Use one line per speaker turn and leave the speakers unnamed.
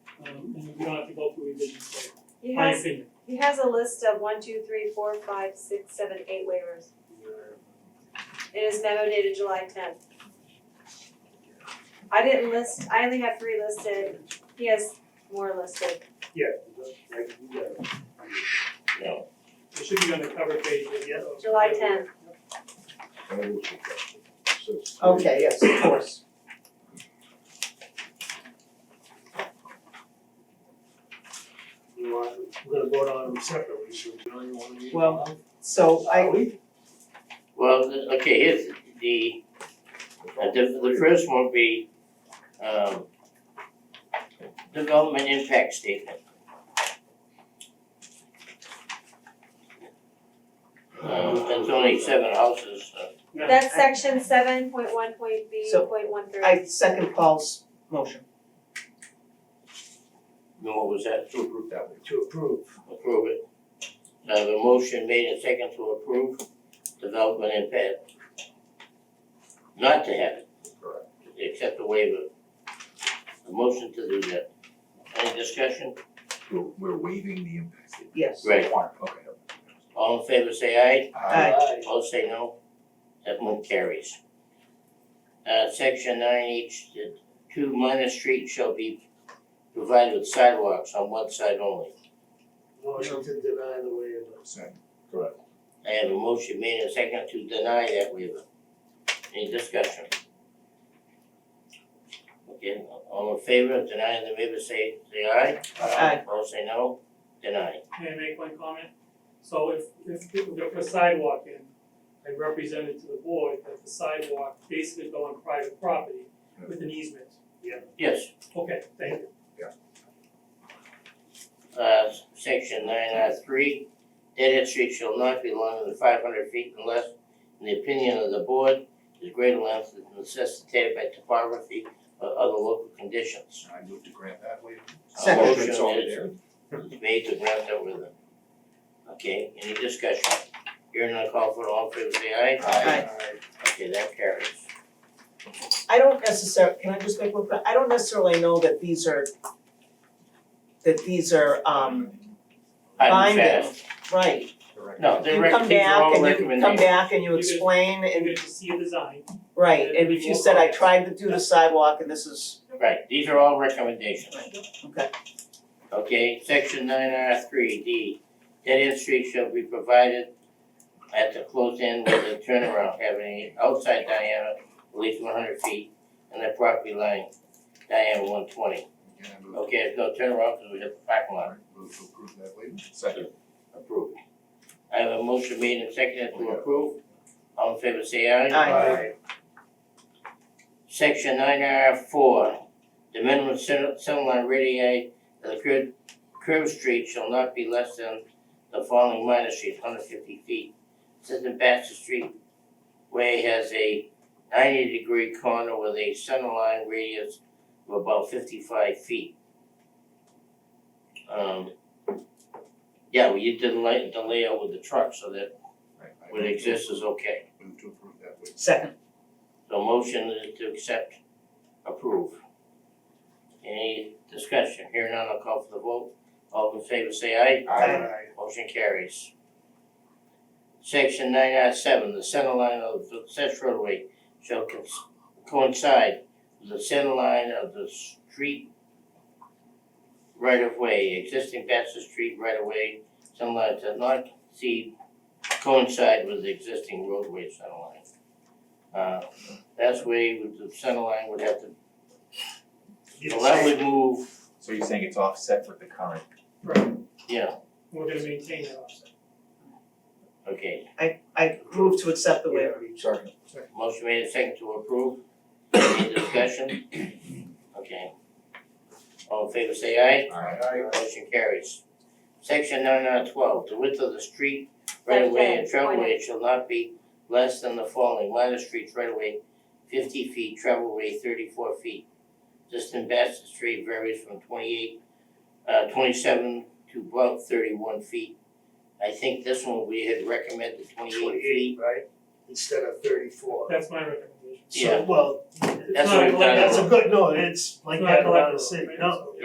um, and we don't have to go through revisions later,
He
my
has,
opinion.
he has a list of one, two, three, four, five, six, seven, eight waivers. It is memo dated July tenth. I didn't list, I only have three listed, he has more listed.
It should be on the cover page of the yellow.
July tenth,
Okay, yes, of course.
You want, we're gonna vote on them separately, so we don't even wanna be-
Well, So I,
Well, th- okay, here's the, uh, the, the first one would be, um, development impact statement. Um, it's only seven houses, uh,
Yeah.
that's section seven point one point B
So,
point one three.
I second Paul's motion.
then what was that,
To approve that way.
To approve.
approve it? Now, the motion made and second to approve development impact. Not to have it,
Correct.
except the waiver. A motion to do that. Any discussion?
We're, we're waiving the impact. statement.
Yes.
Right.
Requirement, okay.
All in favor say aye.
Aye.
All say no. That one carries. Uh, section nine, each, the two minor streets shall be provided with sidewalks on one side only.
Motion to deny the waiver.
Second. Correct.
I have a motion made and second to deny that waiver. Any discussion? Okay, all in favor of denying the waiver, say, say aye.
Aye.
All say no, deny.
May I make one comment? So if, if people go for sidewalk in, I represented to the board that the sidewalk basically go on private property with an easement.
Yes,
Okay, thank you.
uh, section nine R three, dead-end street shall not be longer than five hundred feet unless, in the opinion of the board, is greater length is necessitated by topography or other local conditions.
I move to grant that waiver.
A
Second.
motion
It's all
is
there.
made to grant that with them. Okay, any discussion? Hearing none, call for it, all in favor say aye.
Aye.
Okay, that carries.
I don't necessarily, can I just make one, point? I don't necessarily know that these are, that these are, um,
Hard and
Binding.
fast.
right.
Correct.
No, they rec- these are all
You come back and you come
recommendations.
back and you
You could-
explain
And
and,
then to see a design,
right,
and
and
we
if you
will
said, I
vote.
tried to do the sidewalk and this is,
Right, these are all recommendations.
okay.
Okay, section nine R three D, dead-end streets shall be provided at the close end with a turnaround having an outside diameter at least one hundred feet and the property line diameter one twenty.
Again, I move,
Okay, there's no turnaround because we have the parking lot
move to approve that waiver. Second.
approved. I have a motion made and seconded to approve. All in favor say aye.
Aye.
Section nine R four, the minimum cen- centerline radii of the curb, curb street shall not be less than the following minor street, hundred fifty feet. Assistant Baxter Street Way has a ninety degree corner with a centerline radius of about fifty five feet. Um, yeah, well, you did lay, the layout with the truck, so that
Right, I
what
move to-
exists is okay.
Move to approve that waiver.
Second,
So motion is to accept, approve. Any discussion? Here none, I'll call for the vote. All in favor say aye. Motion carries. Section nine I seven, the center line of the such roadway shall cons- coincide with the center line of the street right of way, existing Bassett Street right of way, center line does not see coincide with the existing roadway center line. Uh, that's way with the center line would have to,
Yes.
well, that would move,
So you're saying it's offset with the current?
yeah,
we're gonna maintain that offset.
okay.
I, I move to accept the waiver.
Second.
Motion made and seconded to approve. Any discussion? Okay. All in favor say aye. Motion carries. Section nine out of twelve, the width of the street right of way and travelway shall not be less than the following, minor streets right of way fifty feet, travelway thirty-four feet. Distant Bassett Street varies from twenty-eight, uh, twenty-seven to about thirty-one feet. I think this one we had recommended twenty-eight feet.
right? Instead of thirty-four.
That's my recommendation.
So, well,
That's what we've done.
that's a good, no, it's like
It's not
that around
collateral,
the city,
right?
no,